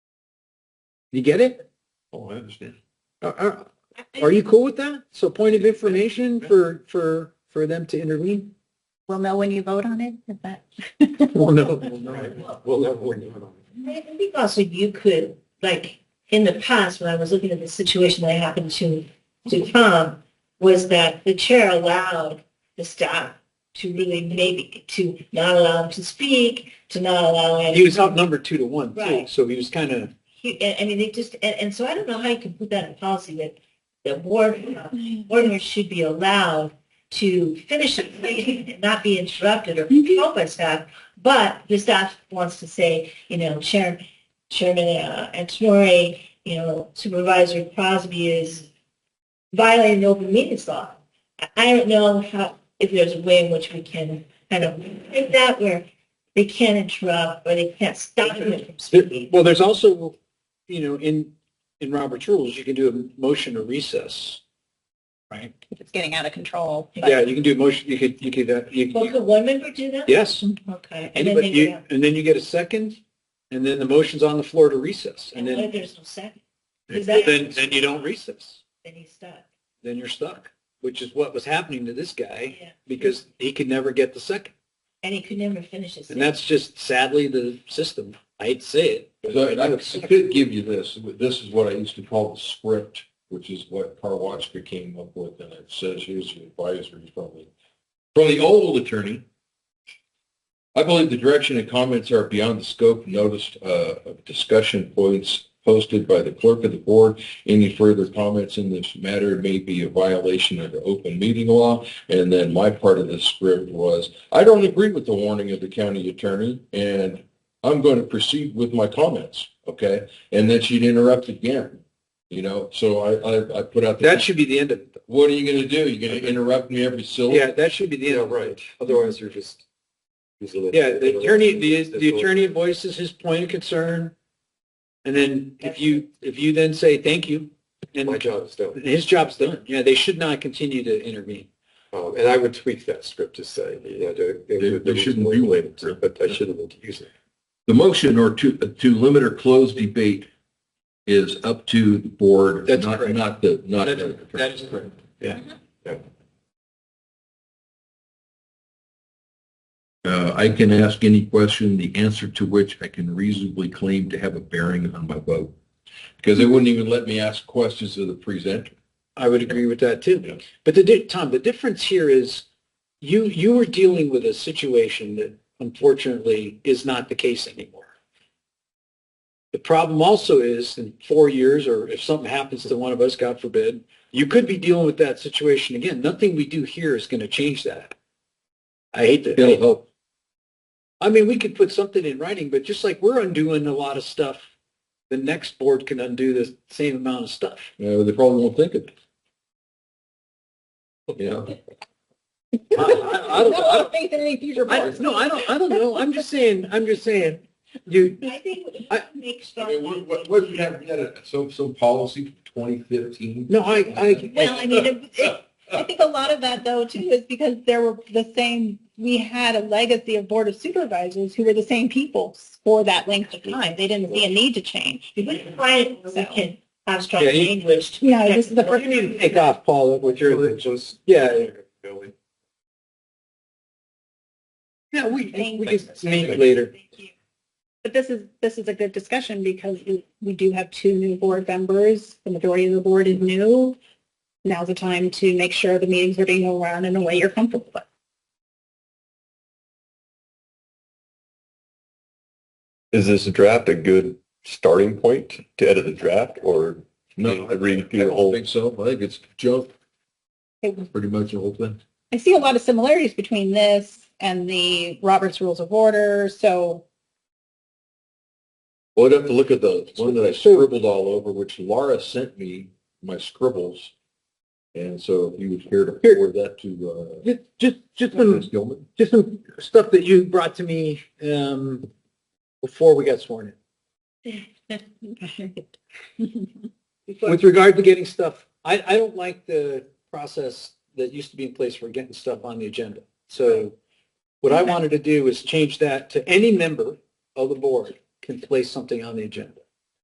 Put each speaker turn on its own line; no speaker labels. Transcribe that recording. You get it?
Oh, I understand.
Are, are, are you cool with that? So point of information for, for, for them to intervene?
We'll know when you vote on it, is that?
Well, no.
We'll never win.
I think also you could, like, in the past, when I was looking at the situation that happened to, to Tom, was that the chair allowed the staff to really maybe, to not allow him to speak, to not allow
He
any,
was outnumbered two to one too,
Right.
so he was kind of,
he- I I mean, they just, and, and so I don't know how you can put that in policy that, that board, uh, board members should be allowed to finish a meeting and not be interrupted or controlled by staff, but the staff wants to say, you know, Chair, Chairman uh, Antonori, you know, Supervisor Crosby is violating the open meetings law. I- I don't know how, if there's a way in which we can kind of make that where they can't interrupt or they can't stop them from speaking.
well, there's also, you know, in, in Robert's rules, you can do a motion to recess. Right?
It's getting out of control. but-
Yeah, you can do a motion, you could, you could, uh, you-
Well,
you,
could one member do that?
yes.
Okay. And then
Anybody,
they
you,
go,
and then you get a second, and then the motion's on the floor to recess, and
and what if
Oh,
then,
there's no second? Is that-
then, then you don't recess.
Then he's stuck.
Then you're stuck, which is what was happening to this guy,
Yeah.
because he could never get the second.
And he could never finish his.
And that's just sadly the system. I hate to say it. but
So I I
it's-
could give you this, but this is what I used to call the script, which is what Karwatska came up with, and it says, here's your advisory from the, from the old attorney. I believe the direction and comments are beyond the scope noticed uh, of discussion points posted by the clerk of the board. Any further comments in this matter may be a violation of the open meeting law. And then my part of the script was, I don't agree with the warning of the county attorney, and I'm going to proceed with my comments, okay? And then she'd interrupt again, you know? So I, I, I put out the.
That should be the end of it. though.
What are you going to do? You're going to interrupt me every syllable?
Yeah, that should be the end of it.
Otherwise, you're just.
Yeah, the attorney, the, the attorney voices his point of concern. And then if you, if you then say, thank you. and
job is done.
His job's done. Yeah, they should not continue to intervene.
Oh, And I would tweak that script to say, you know, They shouldn't be limited, but I shouldn't use it. The motion or to, to limit or close debate is up to the board.
That's
not-
correct.
Not the, not.
That
the
is- that is correct. Yeah.
Uh, I can ask any question, the answer to which I can reasonably claim to have a bearing on my vote. Because they wouldn't even let me ask questions of the presenter.
I would agree with that
Yeah.
too. But the, di- Tom, the difference here is you, you were dealing with a situation that unfortunately is not the case anymore. The problem also is in four years, or if something happens to one of us, God forbid, you could be dealing with that situation again. Nothing we do here is going to change that. I hate that.
It'll help.
I mean, we could put something in writing, but just like we're undoing a lot of stuff, the next board can undo the same amount of stuff.
Uh, they probably won't think of it. You know,
I- I- I don't- I don't-
think any future
I,
boards-
no, I don't, I don't know. I'm just saying, I'm just saying, you,
I think
I-
it makes.
I mean, what, what, what if we have, we had a, some, some policy for 2015?
no, I, I,
Well, I mean, it- it- I think a lot of that though too is because there were the same, we had a legacy of board of supervisors who were the same people for that length of time. They didn't see a need to change.
We can find it where we can have strong
Yeah, you-
language. to
Yeah,
protect
this is the
board.
you need to take off, Paul, with your, yeah. Yeah, we, we can meet later.
Thank you.
But this is, this is a good discussion because we, we do have two new board members. The majority of the board is new. Now's the time to make sure the meetings are being run in a way you're comfortable with.
Is this draft a good starting point to edit the draft or?
No, I
I read through the
don't
whole-
think so. I think it's junk,
It
pretty much the whole thing.
I see a lot of similarities between this and the Roberts Rules of Order, so
Well, I'd have to look at the one that I scribbled all over, which Laura sent me, my scribbles. And so if you was here to
Here.
forward that to,
Just, just, just
uh, Ms.
some,
Gilman.
just some stuff that you brought to me, um, before we got sworn in. With regard to getting stuff, I, I don't like the process that used to be in place for getting stuff on the agenda. So what I wanted to do is change that to any member of the board can place something on the agenda.